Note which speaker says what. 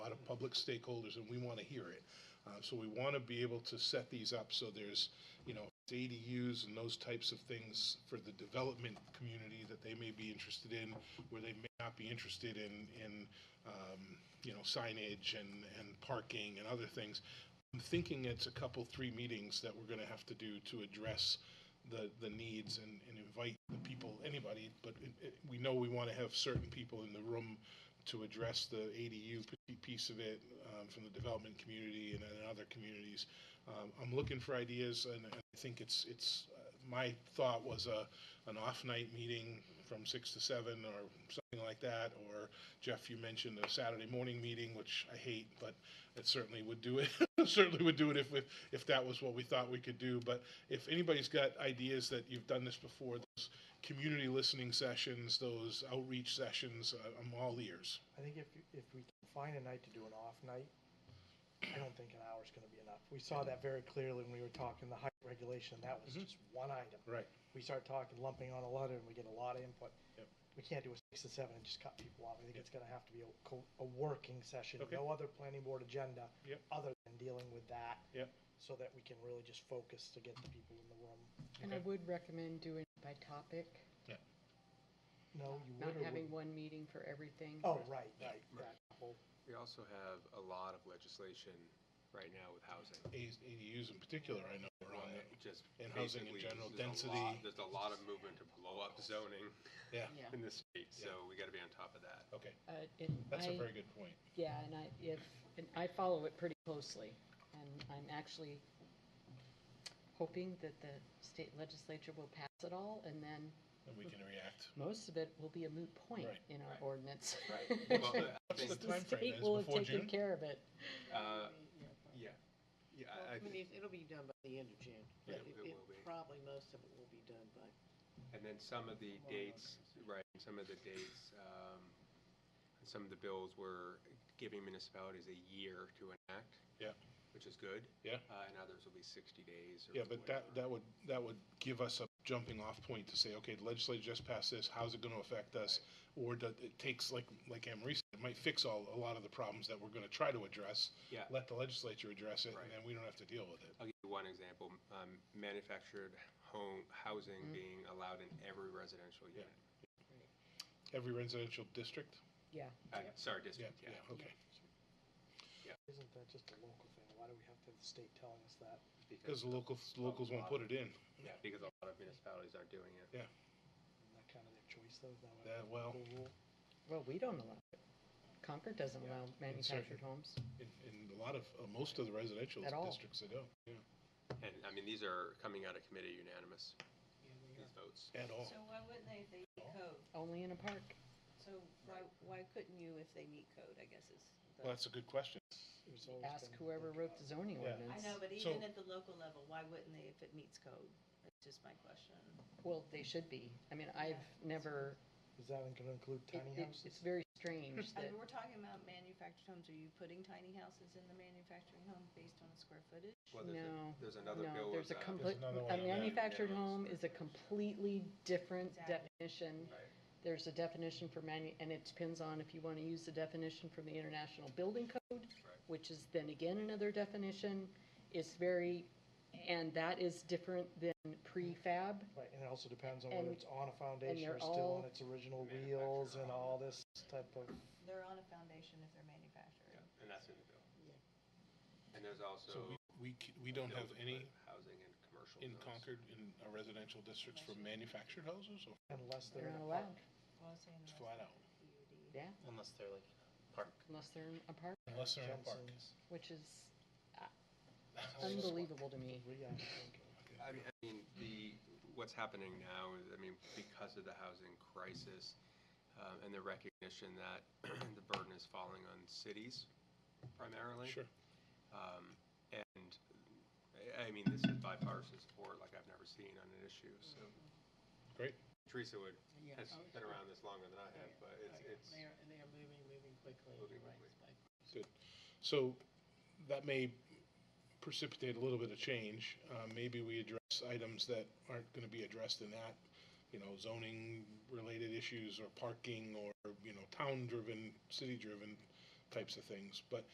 Speaker 1: public stakeholders, and we want to hear it. Uh, So we want to be able to set these up so there's, you know, ADUs and those types of things for the development community that they may be interested in, where they may not be interested in, in, um, you know, signage and, and parking and other things. I'm thinking it's a couple, three meetings that we're going to have to do to address the, the needs and, and invite the people, anybody, but it, it, we know we want to have certain people in the room to address the ADU p- piece of it um, from the development community and in other communities. Um, I'm looking for ideas, and and I think it's, it's, uh, my thought was a, an off-night meeting from six to seven or something like that, or Jeff, you mentioned a Saturday morning meeting, which I hate, but it certainly would do it, certainly would do it if, we- if that was what we thought we could do. But if anybody's got ideas that you've done this before, those community listening sessions, those outreach sessions, uh, I'm all ears.
Speaker 2: I think if, if we can find a night to do an off night, I don't think an hour's gonna be enough. We saw that very clearly when we were talking the height regulation, and that was just one item.
Speaker 1: Mm-hmm. Right.
Speaker 2: We start talking, lumping on a lot, and we get a lot of input.
Speaker 1: Yep.
Speaker 2: We can't do a six to seven and just cut people off. I think it's gonna have to be a, co- a working session,
Speaker 1: Okay.
Speaker 2: no other planning board agenda.
Speaker 1: Yep.
Speaker 2: Other than dealing with that.
Speaker 1: Yep.
Speaker 2: So that we can really just focus to get the people in the room.
Speaker 3: And I
Speaker 1: Okay.
Speaker 3: would recommend doing it by topic,
Speaker 2: No, you
Speaker 3: not
Speaker 2: would or
Speaker 3: having
Speaker 2: wouldn't?
Speaker 3: one meeting for everything.
Speaker 2: Oh, right, right,
Speaker 4: Right.
Speaker 2: that whole-
Speaker 4: We also have a lot of legislation right now with housing.
Speaker 1: A- ADUs in particular, I know are on it.
Speaker 4: Just
Speaker 1: And housing in
Speaker 4: basically,
Speaker 1: general,
Speaker 4: there's a
Speaker 1: density.
Speaker 4: lot- There's a lot of movement to blow up zoning
Speaker 1: Yeah,
Speaker 3: Yeah,
Speaker 4: in this state, so we gotta be on top of that.
Speaker 1: okay.
Speaker 3: uh, and
Speaker 1: That's a
Speaker 3: I-
Speaker 1: very good point.
Speaker 3: Yeah, and I, if, and I follow it pretty closely, and I'm actually hoping that the state legislature will pass it all, and then
Speaker 1: And we can react.
Speaker 3: most of it will be a moot point
Speaker 1: Right.
Speaker 3: in our
Speaker 4: Right.
Speaker 3: ordinance.
Speaker 4: Well, I
Speaker 1: What's
Speaker 4: think,
Speaker 1: the
Speaker 3: The
Speaker 1: time frame?
Speaker 3: state
Speaker 1: Is
Speaker 3: will have
Speaker 1: before
Speaker 3: taken
Speaker 1: June?
Speaker 3: care of it.
Speaker 4: uh, yeah, yeah,
Speaker 5: Well,
Speaker 4: I- I
Speaker 5: I
Speaker 4: think,
Speaker 5: mean, it- it'll be done by the end of June.
Speaker 4: Yeah,
Speaker 5: but
Speaker 4: it will be.
Speaker 5: Probably most of it will be done by,
Speaker 4: and then some of the dates, right, and some of the dates, um, and some of the bills were giving municipalities a year to enact.
Speaker 1: Yeah.
Speaker 4: Which is good.
Speaker 1: Yeah.
Speaker 4: Uh, and others will be sixty days or
Speaker 1: Yeah, but that,
Speaker 4: whatever.
Speaker 1: that would, that would give us a jumping off point to say, okay, the legislature just passed this, how's it gonna affect us? Or does, it takes, like, like Anne Marie said, it might fix all, a lot of the problems that we're gonna try to address.
Speaker 4: Yeah.
Speaker 1: Let the legislature address it,
Speaker 4: Right.
Speaker 1: and then we don't have to deal with it.
Speaker 4: I'll give you one example, um, manufactured home, housing being allowed in every residential
Speaker 1: Mm. Yeah.
Speaker 4: unit.
Speaker 1: Every residential district?
Speaker 3: Yeah,
Speaker 4: Uh,
Speaker 2: Yeah.
Speaker 4: sorry,
Speaker 1: Yeah,
Speaker 4: district,
Speaker 1: yeah,
Speaker 4: yeah.
Speaker 1: okay.
Speaker 2: isn't that just a local thing? Why do we have to have the state telling us that?
Speaker 1: Because locals, locals won't put it in.
Speaker 4: Yeah, because a lot of municipalities aren't doing it.
Speaker 2: Isn't that kind of their choice though? Is that why
Speaker 1: Yeah,
Speaker 2: we
Speaker 1: well,
Speaker 2: have the rule?
Speaker 3: well, we don't allow it. Concord doesn't
Speaker 4: Yeah.
Speaker 3: allow manufactured homes.
Speaker 1: In, in a lot of, uh, most of the residential
Speaker 3: At all.
Speaker 1: districts, they don't, yeah,
Speaker 4: And, I mean, these are coming out of committee unanimous,
Speaker 5: yeah, they
Speaker 4: these votes.
Speaker 1: at all.
Speaker 6: So why wouldn't they, if they meet code?
Speaker 3: Only in a park.
Speaker 6: So why, why couldn't you if they meet code, I guess is the.
Speaker 1: Well, that's a good question.
Speaker 2: It was always
Speaker 3: Ask
Speaker 2: been
Speaker 3: whoever
Speaker 2: like,
Speaker 3: wrote the zoning
Speaker 1: Yeah. I
Speaker 3: ordinance.
Speaker 6: I know, but
Speaker 1: So-
Speaker 6: even at the local level, why wouldn't they if it meets code? That's just my question.
Speaker 3: Well, they should be. I mean, I've never,
Speaker 2: Is that gonna include
Speaker 3: it-
Speaker 2: tiny
Speaker 3: it-
Speaker 2: houses?
Speaker 3: it's very strange
Speaker 6: I
Speaker 3: that,
Speaker 6: mean, we're talking about manufactured homes. Are you putting tiny houses in the manufacturing home based on square footage?
Speaker 4: Well, there's a-
Speaker 3: No,
Speaker 4: There's another bill.
Speaker 3: no, there's a
Speaker 4: with, uh,
Speaker 3: complete,
Speaker 1: another one
Speaker 3: a
Speaker 1: on that.
Speaker 3: manufactured home is a completely different
Speaker 6: Exactly.
Speaker 3: definition.
Speaker 4: Right.
Speaker 3: There's a definition for manu, and it depends on if you want to use the definition from the International Building Code, which is then again another definition. It's very, and that is different than prefab.
Speaker 2: Right, and it also depends on whether
Speaker 3: And-
Speaker 2: it's on a foundation
Speaker 3: they're
Speaker 2: or still
Speaker 3: all
Speaker 2: on its original
Speaker 4: manufactured
Speaker 2: wheels and
Speaker 4: on-
Speaker 2: all this type of,
Speaker 6: They're on a foundation if they're manufactured.
Speaker 4: Yeah, And that's in the bill. And there's also.
Speaker 1: So we, we, c- we don't
Speaker 4: bills
Speaker 1: have
Speaker 4: with
Speaker 1: any
Speaker 4: Housing and commercial.
Speaker 1: in
Speaker 4: zones.
Speaker 1: Concord, in our residential districts for manufactured houses, or
Speaker 2: unless they're
Speaker 3: They're
Speaker 2: in
Speaker 3: not
Speaker 2: a park.
Speaker 3: allowed
Speaker 6: Well, I was saying
Speaker 1: It's
Speaker 6: unless
Speaker 1: flat
Speaker 6: they're
Speaker 1: out.
Speaker 6: PUD.
Speaker 3: Yeah.
Speaker 7: Unless they're like in a park.
Speaker 3: unless they're in a park,
Speaker 1: unless they're in a park.
Speaker 2: Jensen's,
Speaker 3: which is unbelievable to me.
Speaker 2: Rhea, I think.
Speaker 4: I mean, I mean, the, what's happening now is, I mean, because of the housing crisis um, and the recognition that the burden is falling on cities primarily.
Speaker 1: Sure.
Speaker 4: Um, And, I- I mean, this is bipartisan support like I've never seen on an issue, so.
Speaker 1: Great.
Speaker 4: Teresa would,
Speaker 5: Yeah. oh,
Speaker 4: has been around this longer than I have, but it's, it's,
Speaker 5: They are, they are moving, moving quickly,
Speaker 4: Moving
Speaker 5: you're right,
Speaker 4: quickly.
Speaker 5: Spike.
Speaker 1: So that may precipitate a little bit of change. Uh, Maybe we address items that aren't going to be addressed in that, you know, zoning-related issues or parking or, you know, town-driven, city-driven types of things. But